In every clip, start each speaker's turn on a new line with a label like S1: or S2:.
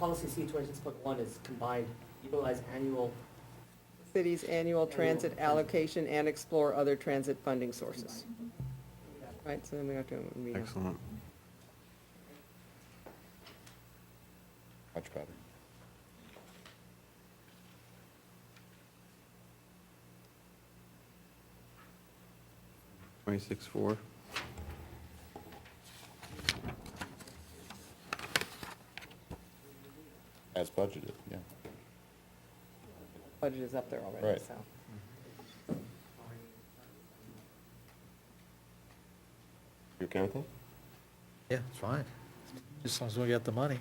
S1: policy C twenty-six point one is combined, utilize annual
S2: City's annual transit allocation and explore other transit funding sources. Right, so then we have to, we have-
S3: Excellent.
S4: Much better.
S3: Twenty-six, four.
S4: As budgeted, yeah.
S2: budget is up there already,
S4: Right.
S2: so.
S4: You okay with that?
S5: Yeah, it's fine. As long as we get the money.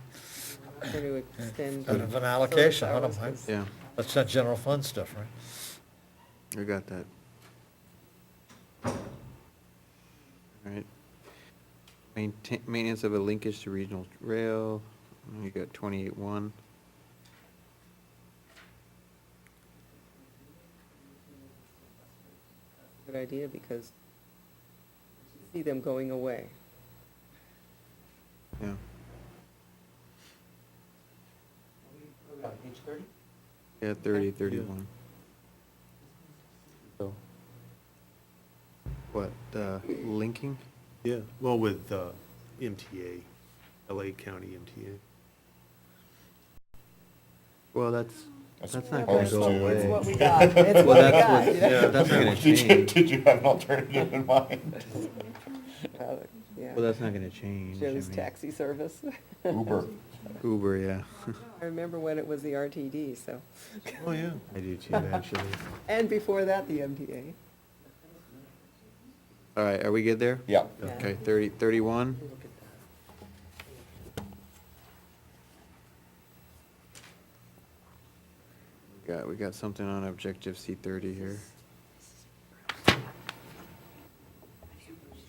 S2: We're going to extend.
S5: Out of an allocation, I don't
S2: service
S5: mind.
S2: hours.
S3: Yeah,
S5: That's not general fund stuff, right?
S3: I got that. All right. Maintain, maintenance of a linkage to regional rail, you got twenty-eight, one.
S2: Good idea, because see them going away.
S3: Yeah,
S1: Uh, Page thirty?
S3: yeah, thirty, thirty-one.
S4: So,
S3: What, uh, linking?
S6: Yeah, well, with uh, MTA, LA County MTA.
S3: Well, that's,
S4: That's
S3: that's not
S4: all
S3: gonna
S4: it's
S3: go
S4: to-
S2: It's
S3: away.
S2: what we got, it's
S3: Well,
S2: what we
S3: that's
S2: got.
S3: what,
S2: you know?
S3: yeah, that's not gonna
S4: Did you,
S3: change.
S4: did you have an alternative in mind?
S2: Uh, yeah.
S3: Well, that's not gonna change. I
S2: Joe's
S3: mean,
S2: taxi service.
S4: Uber.
S3: Uber, yeah.
S2: I remember when it was the RTD, so,
S6: Oh, yeah. I do too, actually.
S2: and before that, the MTA.
S3: All right, are we good there?
S4: Yeah.
S2: Yeah.
S3: Okay, thirty, thirty-one?
S1: Look at that.
S3: Got, we got something on objective C thirty here.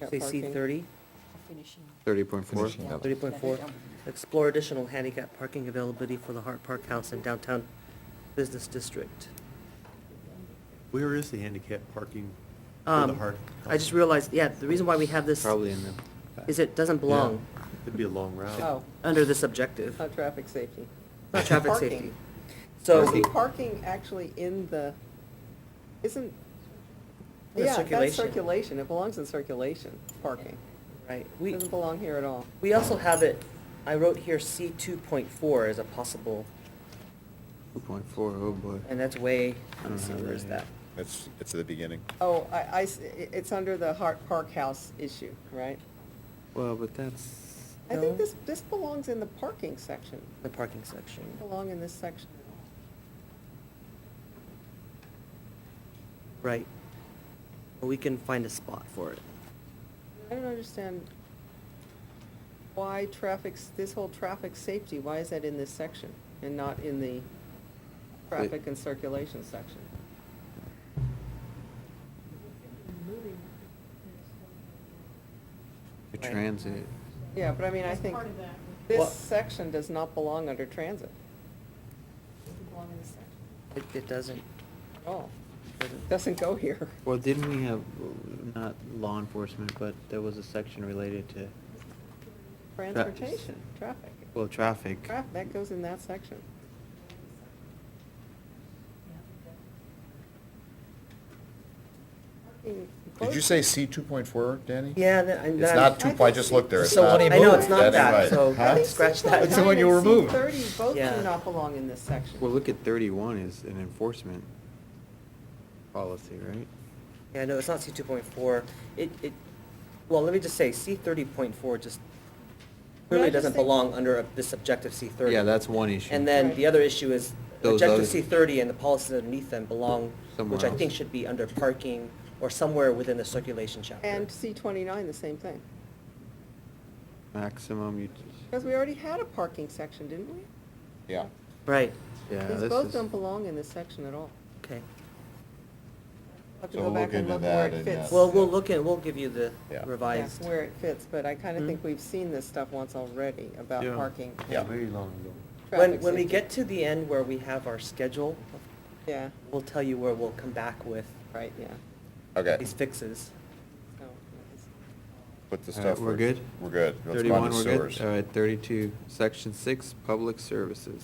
S2: Got
S7: Say C
S2: parking.
S7: thirty,
S8: finishing.
S3: Thirty point four?
S4: Finishing up.
S7: thirty point four, explore additional handicap parking availability for the Hart Park House in downtown business district.
S6: Where is the handicap parking for the
S7: Um,
S6: Hart?
S7: I just realized, yeah, the reason why we have this
S3: Probably in the.
S7: is it doesn't belong
S6: It'd be a long route.
S2: Oh,
S7: under this objective,
S2: not traffic safety.
S7: not traffic
S2: Parking.
S7: safety.
S2: Isn't
S7: So,
S2: parking actually in the, isn't,
S7: The
S2: yeah, that's
S7: circulation.
S2: circulation, it belongs in circulation, parking.
S7: right, we,
S2: Doesn't belong here at all.
S7: we also have it, I wrote here C two point four as a possible,
S3: Two point four, oh boy.
S7: and that's way,
S3: I don't
S7: let's see,
S3: have
S7: where
S3: that
S7: is
S3: here.
S7: that?
S4: It's, it's the beginning.
S2: Oh, I, I s- i- it's under the Hart Park House issue, right?
S3: Well, but that's,
S2: I think
S7: No.
S2: this, this belongs in the parking section,
S7: The parking section.
S2: Doesn't belong in this section.
S7: Right. But We can find a spot for it.
S2: I don't understand why traffic, s- this whole traffic safety, why is that in this section and not in the traffic and circulation section?
S3: the
S7: Right.
S3: transit,
S2: Yeah, but I mean, I think
S7: Well-
S2: this section does not belong under transit
S7: It, it doesn't,
S2: at all.
S7: doesn't
S2: Doesn't go here.
S3: well, didn't we have, uh, not law enforcement, but there was a section related to,
S2: Transportation, traffic.
S3: well, traffic.
S2: Traffic, that goes in that section. Parking
S4: Did you
S2: enclosure.
S4: say C two point four, Danny?
S7: Yeah, that- I'm
S4: It's
S7: not-
S4: not two, I just looked there. It's
S7: So
S4: not-
S7: I know it's not
S4: That's
S7: that,
S4: right.
S7: so
S4: Huh?
S7: scratch that.
S2: I think
S7: It's the
S4: one you
S2: C9 and
S4: removed.
S2: C30 both
S7: Yeah.
S2: do not belong in this section.
S3: Well, look at thirty-one is an enforcement policy, right?
S7: Yeah, no, it's not C two point four. It, it, well, let me just say, C thirty point four just
S2: But I
S7: clearly
S2: just
S7: doesn't
S2: think-
S7: belong under a- this objective C thirty.
S3: Yeah, that's one issue.
S7: And then
S2: Right.
S7: the other issue is
S3: Those
S7: objective
S3: other-
S7: C thirty and the policies underneath them belong, which
S3: Somewhere
S7: I think
S3: else.
S7: should be under parking or somewhere within the circulation chapter.
S2: And C twenty-nine, the same thing.
S3: Maximum, ut-
S2: Because we already had a parking section, didn't we?
S4: Yeah.
S7: Right,
S3: yeah,
S2: These
S3: this
S2: both
S3: is-
S2: don't belong in this section at all.
S7: okay.
S2: I'll have to
S4: So
S2: go
S4: we'll
S2: back
S4: look
S2: and
S4: into
S2: look where
S4: that
S2: it
S4: and,
S2: fits.
S4: uh,
S7: Well, we'll look at, we'll give you the
S4: Yeah.
S7: revised.
S2: Yeah, Where it fits, but I kind of
S7: Hmm?
S2: think we've seen this stuff once already about
S6: Yeah.
S2: parking. and
S4: Yeah.
S6: Very long ago.
S7: When,
S2: traffic
S7: when we
S2: safety.
S7: get to the end where we have our schedule,
S2: Yeah,
S7: we'll tell you where we'll come back with
S2: right, yeah.
S4: Okay.
S7: these fixes.
S2: So, it's-
S4: put the
S3: All right,
S4: stuff.
S3: we're
S4: where-
S3: good?
S4: We're good. Let's go on
S3: Thirty-one,
S4: to
S3: we're good?
S4: sewers.
S3: All right, thirty-two, section six, public services.